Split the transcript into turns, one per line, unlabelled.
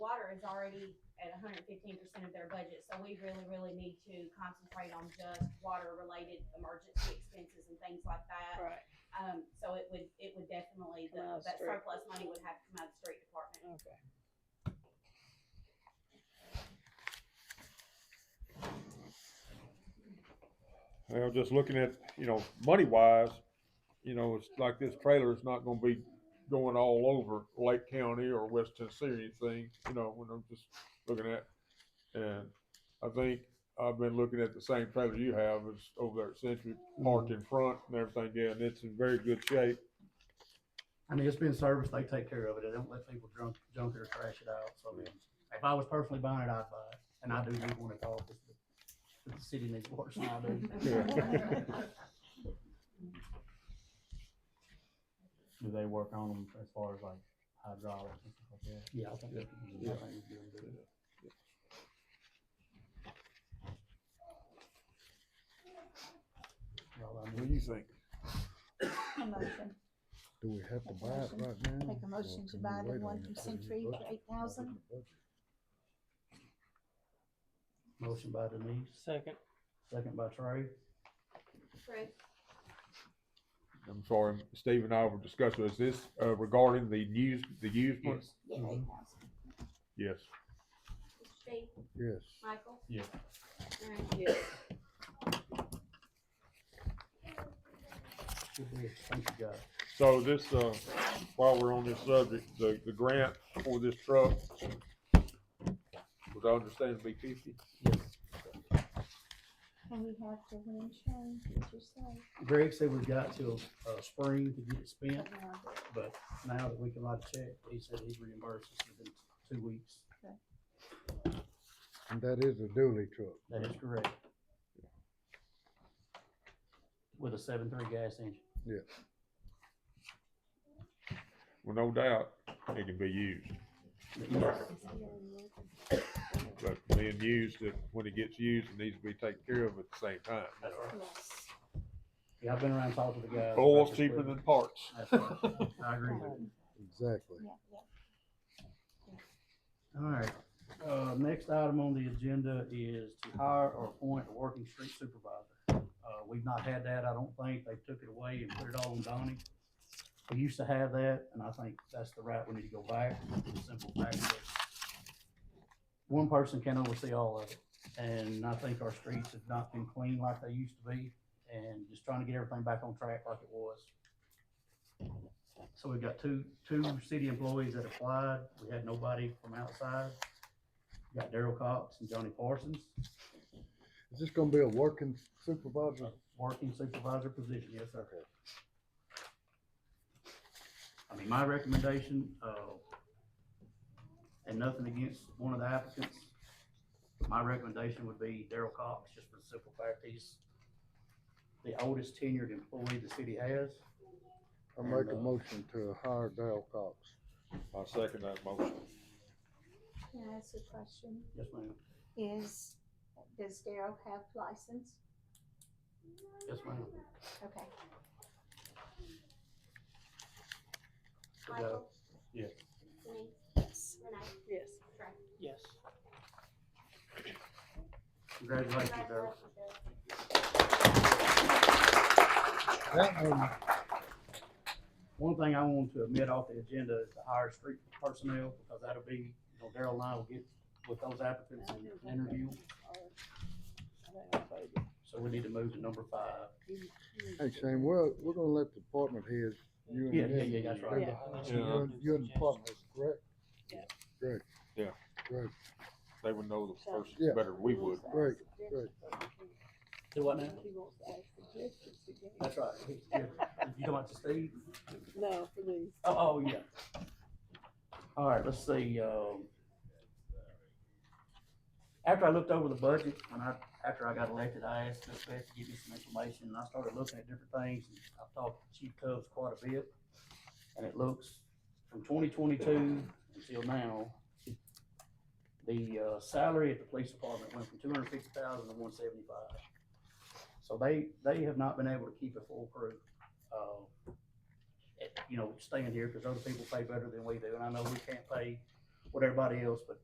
is already at hundred and fifteen percent of their budget, so we really, really need to concentrate on just water-related emergency expenses and things like that.
Right,
Um, so it would, it would definitely,
Come
the-
out of
that
street.
surplus money would have to come out of the street department.
okay.
Well, just looking at, you know, money wise, you know, it's like this trailer is not gonna be going all over Lake County or West Tennessee or anything, you know, when I'm just looking at. And I think I've been looking at the same trailer you have, it's over there at Century, parked in front and everything, yeah, and it's in very good shape.
I mean, it's been serviced, they take care of it, they don't let people junk, junk it or trash it out, so I mean, if I was personally buying it, I'd buy it, and I do need one at all, because the, the city needs water, so I do.
Do they work on them as far as like hydraulics and stuff like that?
Yeah, I think, that-
Yeah.
I think it's doing good. Well, I
What
mean,
do you think?
A motion,
Do we have to buy it right now?
make a motion to buy the one from Century for eight thousand.
motion by Denise,
Second.
second by Trey,
Correct.
I'm sorry, Steve and I were discussing, is this uh, regarding the used, the used one?
Yeah, eight thousand.
Yes.
Steve,
Yes.
Michael?
Yeah.
Alright.
Yes.
good deal, thank you guys.
So this, uh, while we're on this subject, the, the grant for this truck was I understand to be fifty?
And we have to win insurance, did you say?
Greg said we've got till, uh, spring to get it spent,
No,
but
but-
now that we can write a check, he said he'd reimburse us within two weeks.
And that is a dually truck.
That is correct. With a seven three gas engine.
Well, no doubt, it can be used, but being used, that when it gets used, it needs to be taken care of at the same time.
That's right.
Yes.
Yeah, I've been around talking to the guys.
Oil's
about this
cheaper
equipment.
than parts.
That's right. I agree with you.
Exactly.
Yeah, yeah.
All right, uh, next item on the agenda is to hire or appoint a working street supervisor. Uh, we've not had that, I don't think, they took it away and put it all on Donnie. We used to have that, and I think that's the route we need to go back, for the simple fact that one person can oversee all of it, and I think our streets have not been clean like they used to be, and just trying to get everything back on track like it was. So we've got two, two city employees that applied, we had nobody from outside. We Got Daryl Cox and Johnny Parsons,
Is this gonna be a working supervisor?
working supervisor position, yes, sir. I mean, my recommendation, uh, and nothing against one of the applicants, my recommendation would be Daryl Cox, just for the simple fact he's the oldest tenured employee the city has.
I make
And,
a
uh,
motion to hire Dale Cox.
I second that motion.
Can I ask a question?
Yes, ma'am.
Is, does Daryl have license?
Yes, ma'am.
Okay.
We got-
Yeah.
Denise,
Yes.
Renee,
Yes.
Trey.
Yes.
Congratulations, Daryl.
That um, one,
One thing I want to admit off the agenda is to hire street personnel, because that'll be, you know, Daryl and I will get with those applicants and interview. So we need to move to number five.
hey Shane, we're, we're gonna let the department heads, you and
Yeah,
them.
yeah, yeah, that's
do
right.
the-
Yeah.
You're, you're the department heads, correct?
Yeah.
Great.
Yeah.
Great,
They would know the person
Yeah.
better than we would.
great, great.
Do what now? That's right. You talking about to Steve?
No, please.
Oh, oh, yeah. All right, let's see, um. After I looked over the budget, when I, after I got elected, I asked Miss Beth to give me some information, and I started looking at different things, and I've talked to Chief Cubs quite a bit. And it looks, from twenty twenty-two until now, the, uh, salary at the police department went from two hundred fifty thousand to one seventy-five. So they, they have not been able to keep a full crew. Uh, it- you know, staying here, because other people pay better than we do, and I know we can't pay what everybody else, but